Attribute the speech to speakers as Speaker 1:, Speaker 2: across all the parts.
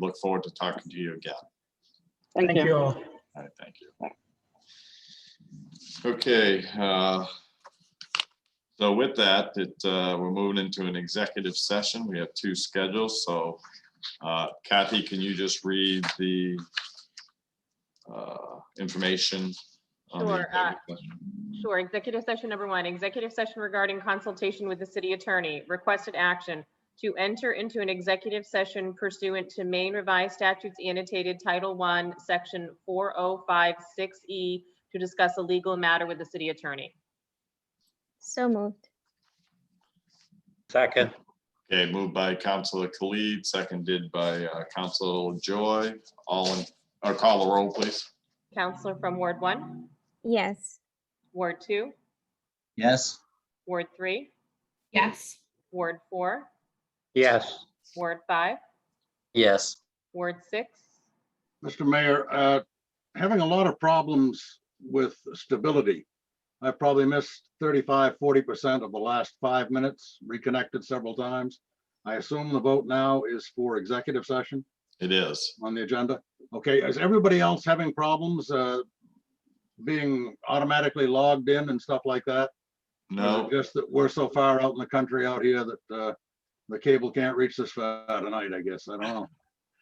Speaker 1: We look forward to talking to you again.
Speaker 2: Thank you.
Speaker 3: all.
Speaker 1: All right, thank you. Okay, uh, so with that, it, uh, we're moving into an executive session. We have two schedules, so uh, Kathy, can you just read the uh, information? on the
Speaker 4: Sure, uh,
Speaker 1: executive session?
Speaker 4: Sure. Executive session number one, executive session regarding consultation with the city attorney. Requested action to enter into an executive session pursuant to Maine Revised Statutes annotated Title I, Section 4056E, E, to discuss a legal matter with the city attorney.
Speaker 5: So moved.
Speaker 3: Second,
Speaker 1: Okay, moved by Counselor Khalid, seconded by uh, Counselor Joy. All in, or call the roll, please.
Speaker 4: Counselor from Ward one,
Speaker 5: Yes.
Speaker 4: Ward two,
Speaker 6: Yes,
Speaker 4: Ward three,
Speaker 7: Yes.
Speaker 4: Ward four,
Speaker 3: yes,
Speaker 4: Ward five,
Speaker 6: yes,
Speaker 4: Ward six.
Speaker 8: Mr. Mayor, uh, having a lot of problems with stability. I probably missed 35, 40% of the last five minutes, reconnected several times. I assume the vote now is for executive session
Speaker 1: It is.
Speaker 8: on the agenda. Okay, is everybody else having problems uh, being automatically logged in and stuff like that? Or is it
Speaker 1: No,
Speaker 8: Just that we're so far out in the country out here that uh, the cable can't reach this far tonight, I guess. I don't know.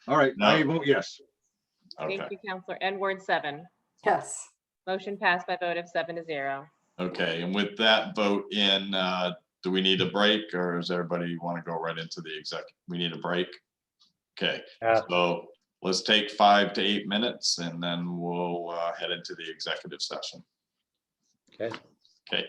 Speaker 8: All right, I vote yes.
Speaker 1: okay,
Speaker 4: Thank you, Counselor. And Ward seven.
Speaker 7: Yes.
Speaker 4: Motion passed by vote of seven to zero.
Speaker 1: okay. And with that vote in, uh, do we need a break or is everybody want to go right into the exec? We need a break? Okay,
Speaker 3: Yeah.
Speaker 1: so let's take five to eight minutes and then we'll uh, head into the executive session.
Speaker 3: okay.
Speaker 1: Okay,